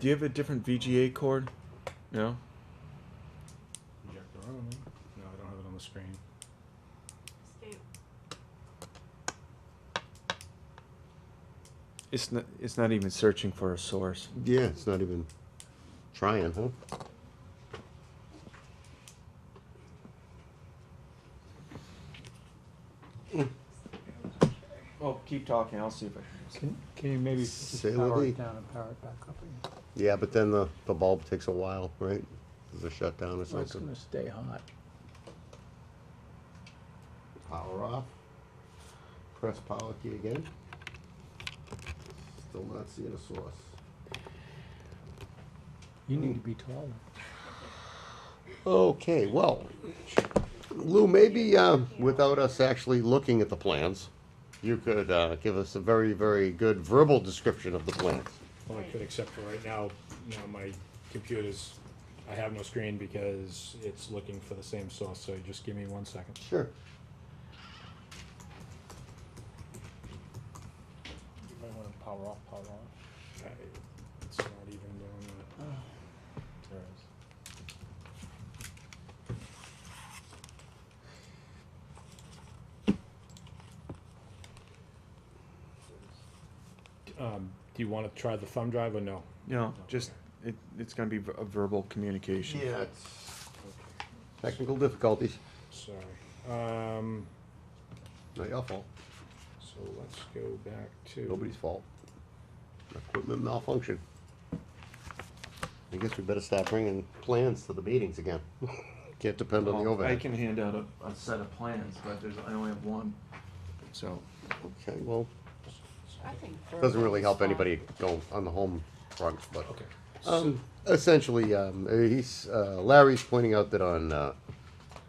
Do you have a different VGA cord? No. Projector on. eh? No, I don't have it on the screen. Escape. It's not. It's not even searching for a source. Yeah, it's not even trying, huh? Well, Oh, keep talking. I'll see if I Can, can you maybe just Say what power he- it down and power it back up again? Yeah, but then the, the bulb takes a while, right? There's a shutdown or Well, it's something. gonna stay hot. Power off. Press power key again. Still not seeing a source. You need to be taller. Okay, well, Lou, maybe um, without us actually looking at the plans, you could uh, give us a very, very good verbal description of the plans. Well, I could, except for right now, you know, my computer's, I have no screen because it's looking for the same source, so just give me one second. Sure. You might wanna power off, power on. I- It's not even doing that. There it is. Um, do you wanna try the thumb drive or no? No, just it, it's going to be a verbal communication. it's. Technical difficulties, Sorry. Um, not your fault, so let's go back to. nobody's fault. Equipment malfunction. I guess we better start bringing plans to the meetings again. Can't depend on the Well, I overhead. can hand out a, a set of plans, but there's I only have one. So Okay, well, I think. doesn't really help verbal is anybody go on the home front, but. Okay. Um, essentially, um, he's, uh, Larry's pointing out that on, uh,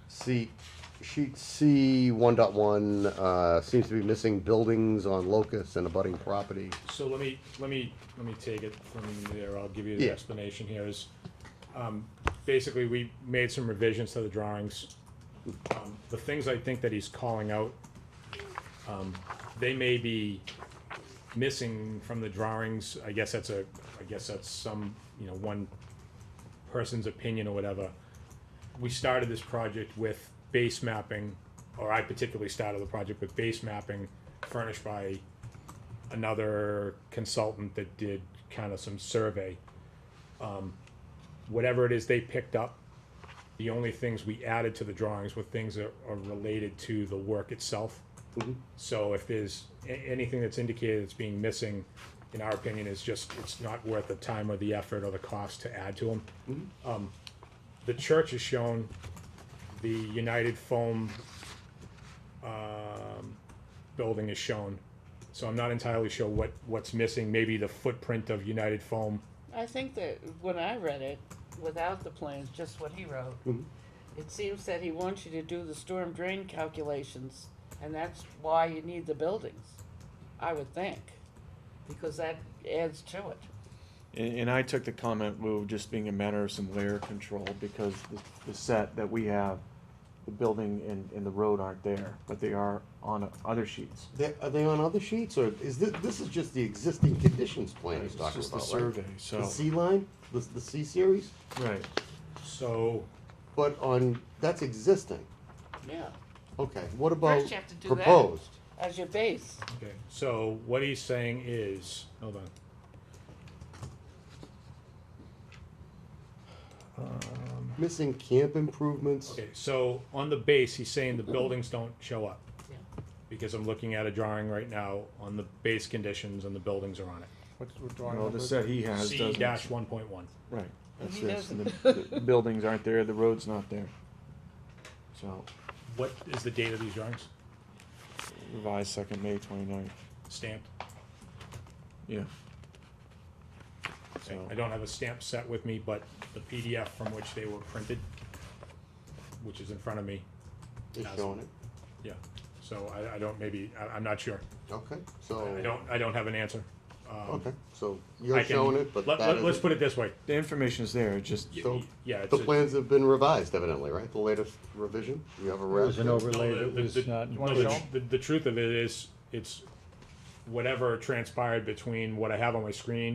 C, sheet C one dot one, uh, seems to be missing buildings on locus and abutting property. So let me, let me, let me take it from there, I'll give you the Yeah. explanation here is, um, basically, we made some revisions to the drawings. Um, The things I think that he's calling out, um, they may be missing from the drawings, I guess that's a, I guess that's some, you know, one person's opinion or whatever. We started this project with base mapping, or I particularly started the project with base mapping furnished by another consultant that did kind of some survey. Um, whatever it is they picked up, the only things we added to the drawings were things that are related to the work itself. So if there's a- anything that's indicated that's being missing, in our opinion, is just, it's not worth the time or the effort or the cost to add to them. Um, the church is shown, the United Foam, um, building is shown. So I'm not entirely sure what, what's missing, maybe the footprint of United Foam. fine. I think that when I read it, without the plans, just what he wrote, it seems that he wants you to do the storm drain calculations, and that's why you need the buildings, I would think, because that adds to it. And, and I took the comment, Lou, just being a matter of some layer control, because the, the set that we have, the building and, and the road aren't there, but they are on other sheets. They, are they on other sheets, or is this, this is just the existing conditions plan he's It's talking just the about, right? survey, so, The C line, the, the C series, right. So, but on, that's existing, Yeah, okay, what about First you have to do that. proposed? as your base. okay, so what he's saying is, hold on. Missing camp improvements, Okay, so on the base, he's saying the buildings don't show up. Yeah. Because I'm looking at a drawing right now on the base conditions and the buildings are on it. What's, what drawing Well, number the is set he has C doesn't. dash one point one. Right. That's He this, and the, the buildings aren't there, the road's not there. So, What is the date of these drawings? revised second, May twenty-ninth, Stamped? yeah. Okay, So, I don't have a stamp set with me, but the PDF from which they were printed, which is in front of me, is showing it, yeah. So I, I don't, maybe, I, I'm not sure. okay, I so, don't, I don't have an answer. Um, okay, so I you're can- showing it, but let- that let- Let's isn't. put it this way. the information's there, just, Y- So, y- Yeah. it's The a- plans have been revised evidently, right? The latest revision? You have a It was an rev? No, overlay the- that the- was the- not. no, the- The, the truth of it is, it's whatever transpired between what I have on my screen